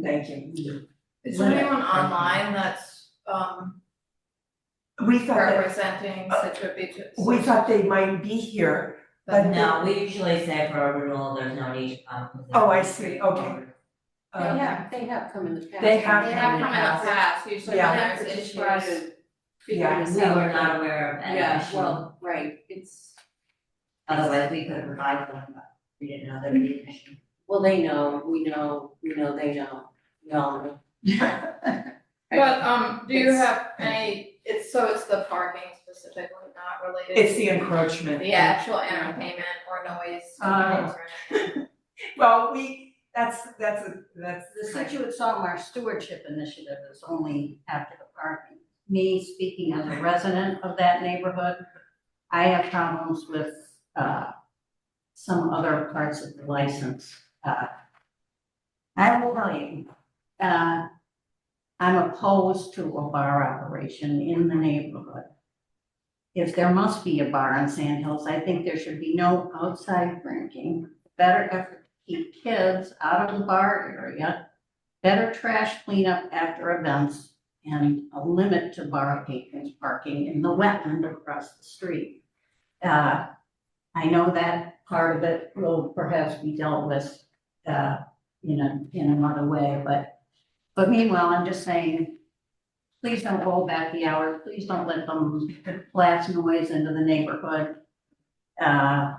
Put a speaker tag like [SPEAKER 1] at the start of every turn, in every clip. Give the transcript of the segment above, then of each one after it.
[SPEAKER 1] Thank you.
[SPEAKER 2] Is there anyone online that's um
[SPEAKER 1] We thought
[SPEAKER 2] representing Situate Beaches?
[SPEAKER 1] that, we thought they might be here.
[SPEAKER 2] But
[SPEAKER 3] No, we usually say for a renewal, there's no need to come. because
[SPEAKER 1] Oh, I see, okay.
[SPEAKER 4] They
[SPEAKER 1] Um,
[SPEAKER 4] have, they have come in the past.
[SPEAKER 1] They have
[SPEAKER 2] They have come in the past, usually when
[SPEAKER 4] Yeah,
[SPEAKER 2] there's
[SPEAKER 4] but
[SPEAKER 2] issues.
[SPEAKER 4] just try to figure
[SPEAKER 1] Yeah,
[SPEAKER 4] this
[SPEAKER 3] We
[SPEAKER 4] out.
[SPEAKER 3] were not aware of that
[SPEAKER 4] Yeah,
[SPEAKER 3] issue,
[SPEAKER 4] well, right, it's,
[SPEAKER 3] otherwise we could provide them, but we didn't know there would be an issue.
[SPEAKER 4] well, they know, we know, we know, they know, we all know.
[SPEAKER 2] But um, do you
[SPEAKER 4] It's-
[SPEAKER 2] have any, it's, so it's the parking specifically, not related?
[SPEAKER 1] It's
[SPEAKER 2] to
[SPEAKER 1] the encroachment.
[SPEAKER 2] The actual entertainment or noise complaints or anything?
[SPEAKER 1] Well, we, that's, that's, a that's.
[SPEAKER 5] The Situate Sawmar Stewardship Initiative is only after the parking. Me, speaking as a resident of that neighborhood, I have problems with, uh, some other parts of the license. Uh, I will tell you, uh, I'm opposed to a bar operation in the neighborhood. If there must be a bar on Sand Hills, I think there should be no outside drinking. Better effort keep kids out of the bar area, better trash cleanup after events, and a limit to bar patrons parking in the wetland across the street. Uh, I know that part of it will perhaps be dealt with, uh, in a, in another way, but, but meanwhile, I'm just saying, please don't roll back the hours, please don't let them blast noise into the neighborhood. Uh,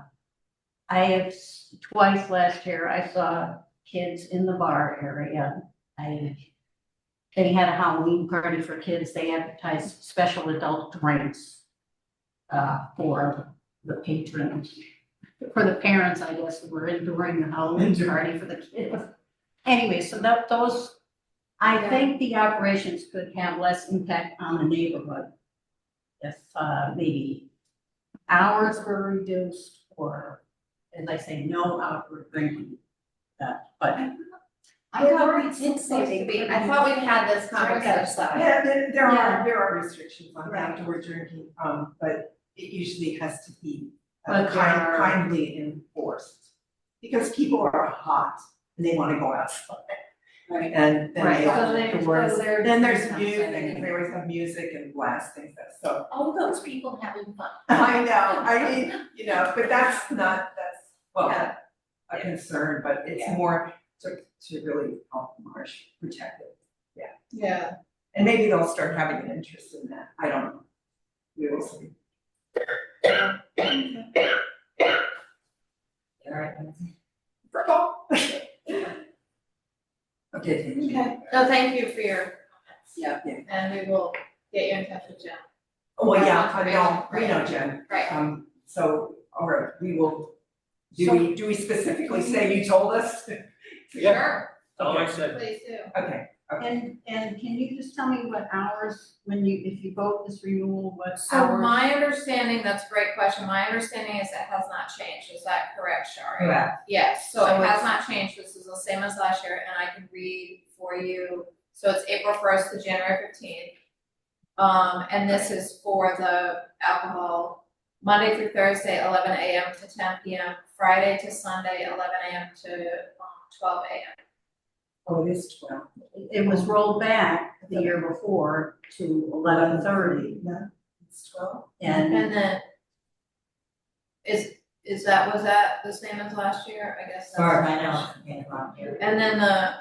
[SPEAKER 5] I have s- twice last year, I saw kids in the bar area. I, they had a Halloween party for kids. They advertised special adult drinks uh, for the patrons, for the parents, I guess, who were in during the Halloween
[SPEAKER 1] Enjoy.
[SPEAKER 5] party for the kids. Anyway, so that, those, I
[SPEAKER 2] Yeah.
[SPEAKER 5] think the operations could have less impact on the neighborhood. If, uh, maybe hours were reduced or as I say, no outward drinking. Uh, but
[SPEAKER 2] I thought we did to be, I thought we had this conversation.
[SPEAKER 1] Yeah, there, there are,
[SPEAKER 5] Yeah.
[SPEAKER 1] there are restrictions on
[SPEAKER 2] Right.
[SPEAKER 1] outdoor drinking, um, but it usually has to be uh,
[SPEAKER 5] But there
[SPEAKER 1] kind,
[SPEAKER 5] are-
[SPEAKER 1] kindly enforced. Because people are hot and they wanna go outside
[SPEAKER 4] Right.
[SPEAKER 1] and then they
[SPEAKER 5] Right,
[SPEAKER 1] all
[SPEAKER 5] so
[SPEAKER 1] have
[SPEAKER 5] they-
[SPEAKER 1] the
[SPEAKER 5] so
[SPEAKER 1] worst.
[SPEAKER 5] they're
[SPEAKER 1] Then there's
[SPEAKER 5] doing
[SPEAKER 1] music,
[SPEAKER 5] something.
[SPEAKER 1] they always have music and blasting stuff, so.
[SPEAKER 4] All those people having fun.
[SPEAKER 1] I know, I mean, you know, but that's not, that's, well,
[SPEAKER 4] Yeah.
[SPEAKER 1] a concern, but it's more to, to really help the marsh protect it.
[SPEAKER 2] Yeah.
[SPEAKER 1] And maybe they'll start having an interest in that, I don't know. We will see.
[SPEAKER 3] All right, let's see.
[SPEAKER 1] Okay, thank you.
[SPEAKER 2] Okay, no, thank you for your comments.
[SPEAKER 4] Yeah.
[SPEAKER 1] Yeah.
[SPEAKER 2] And we will get you in touch with Jen.
[SPEAKER 1] Oh, Well, yeah, I know, we know Jen,
[SPEAKER 2] Right,
[SPEAKER 1] um, so, all right, we will, do we, do we specifically say you told us?
[SPEAKER 6] Yeah.
[SPEAKER 2] sure,
[SPEAKER 6] Oh, I said,
[SPEAKER 2] please do.
[SPEAKER 1] Okay,
[SPEAKER 5] And, and can you just tell me what hours, when you, if you vote this renewal, what
[SPEAKER 2] So
[SPEAKER 5] hours?
[SPEAKER 2] my understanding, that's a great question, my understanding is it has not changed, is that correct, Shari?
[SPEAKER 3] Correct.
[SPEAKER 2] Yes, so
[SPEAKER 1] So
[SPEAKER 2] it has not changed, this is the same as last year, and I can read for you, so it's April first to January fifteenth. Um, and this is for the alcohol, Monday through Thursday, eleven AM to ten PM, Friday to Sunday, eleven AM to um, twelve AM.
[SPEAKER 1] oh, it is twelve.
[SPEAKER 5] It was rolled back the year before to eleven thirty
[SPEAKER 1] No, it's twelve?
[SPEAKER 5] and
[SPEAKER 2] And then is, is that, was that the same as last year? I guess that's.
[SPEAKER 3] Sorry, I know, okay, well, here.
[SPEAKER 2] And then the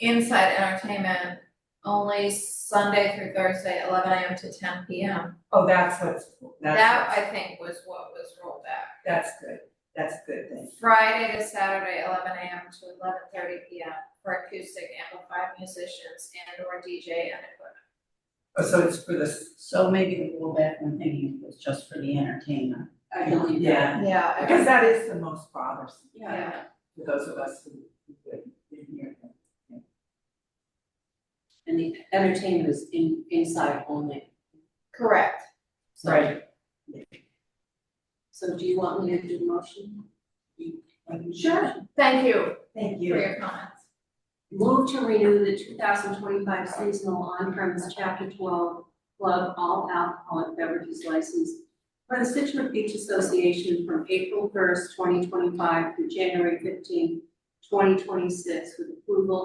[SPEAKER 2] inside entertainment, only Sunday through Thursday, eleven AM to ten PM.
[SPEAKER 1] Oh, that's what's,
[SPEAKER 2] That,
[SPEAKER 1] that's,
[SPEAKER 2] I think, was what was rolled back.
[SPEAKER 1] that's good, that's good, thank you.
[SPEAKER 2] Friday to Saturday, eleven AM to eleven thirty PM for acoustic amplified musicians and or DJ and equipment.
[SPEAKER 1] Oh, so it's for this,
[SPEAKER 5] so maybe the rollback one thing was just for the entertainment.
[SPEAKER 4] I believe that.
[SPEAKER 1] Yeah. because
[SPEAKER 2] Yeah.
[SPEAKER 1] that is the most bothersome
[SPEAKER 4] Yeah.
[SPEAKER 1] for those of us who, who live in here.
[SPEAKER 4] And the entertainment is in, inside only.
[SPEAKER 2] Correct.
[SPEAKER 4] So- So do you want me to do the motion?
[SPEAKER 1] Sure.
[SPEAKER 2] Thank you
[SPEAKER 1] Thank
[SPEAKER 2] for
[SPEAKER 1] you.
[SPEAKER 2] your comments.
[SPEAKER 4] Move to renew the two thousand twenty-five seasonal on-premise chapter twelve club all alcoholic beverages license for the Situate Beach Association from April first, twenty twenty-five through January fifteenth, twenty twenty-six with approval